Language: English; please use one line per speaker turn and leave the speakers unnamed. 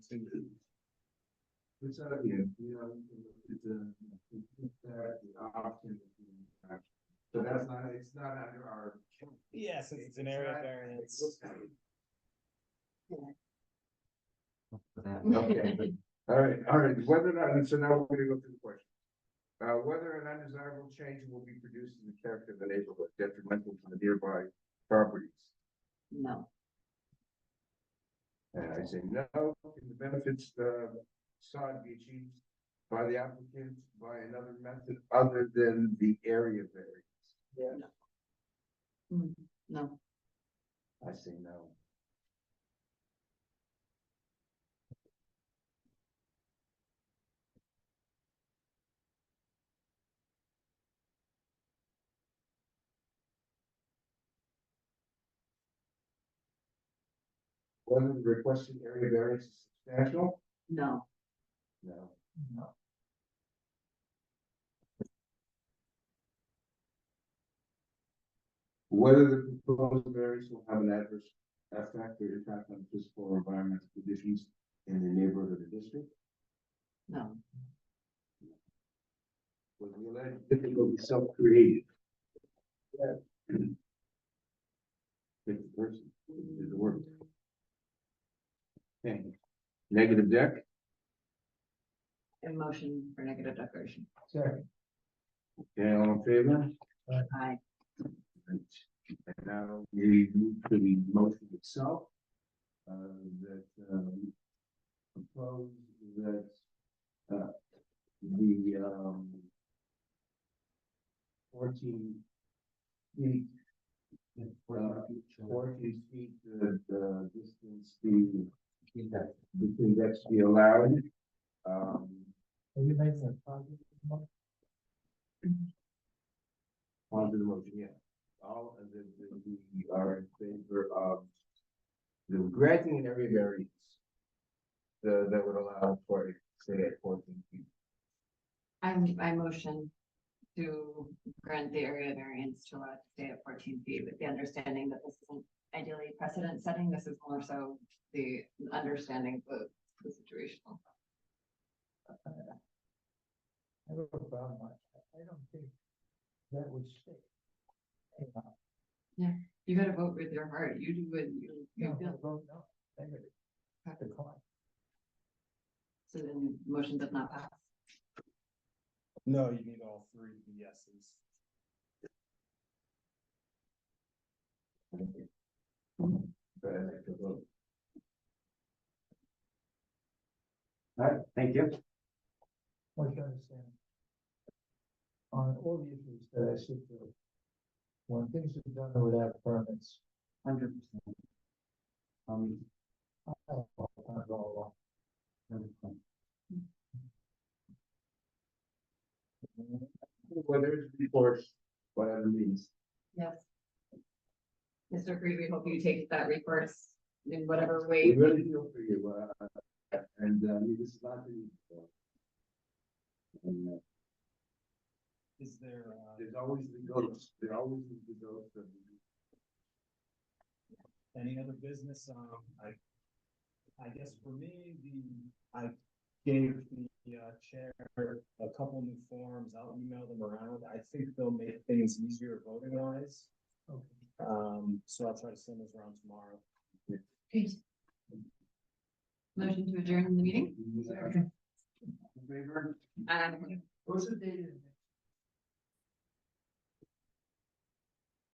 It's out of here, you know, it's a, option. So that's not, it's not under our.
Yes, it's an area variance.
Okay, all right, all right, whether or not, and so now we're gonna go through the question. Uh, whether an undesirable change will be produced in the character of the neighborhood detrimental to the nearby properties.
No,
And I say no, can the benefits, uh, sought be achieved by the applicant by another method other than the area variance.
Mm, no,
I say no. Whether the requested area variance is substantial?
no,
No. Whether the proposed variance will have an adverse effect or impact on physical or environmental conditions in the neighborhood or the district,
no,
whether the alleged difficulty is self-created. If the person did the work. Okay. Negative deck?
a motion for negative declaration.
Sorry. Okay, all in favor?
Aye.
And now uh, we move to the motion itself. Uh, that, um, propose that, uh, the, um, fourteen feet, uh, fourteen feet, the, the distance be, between that's be allowed. Um,
Are you making a positive?
On to the motion, yeah. All of the, the- we are in favor of the granting an area variance. The, that would allow for, say, at fourteen feet.
I'm, I motion to grant the area variance to allow it to stay at fourteen feet with the understanding that this isn't ideally precedent setting. This is more so the understanding of the situational.
I have a problem with that. I don't think that would stick. Hey, uh,
You gotta vote with your heart. You do what you,
no,
you
I
feel.
vote no. Negative. Have to call it.
So then the motion does not pass.
No, you need all three yeses.
But I like to vote. All right, thank you.
What you understand? On all the issues that I sit through. When things are done without permits.
Hundred percent. Um,
I don't know if I'm all along.
whether it's recourse, whatever means.
Yes. Mr. Creed, we hope you take that recourse in whatever
We
way.
really feel for you, uh, and, uh, this is not the. And, uh,
Is there, uh,
There's always the ghost, there always is the ghost of.
any other business, um, I, I guess for me, the, I gave the, uh, chair a couple new forms, I'll email them around, I think they'll make things easier voting wise.
Okay.
Um, so I'll try to send those around tomorrow.
Motion to adjourn the meeting?
Favor?
Um,
What's the date of the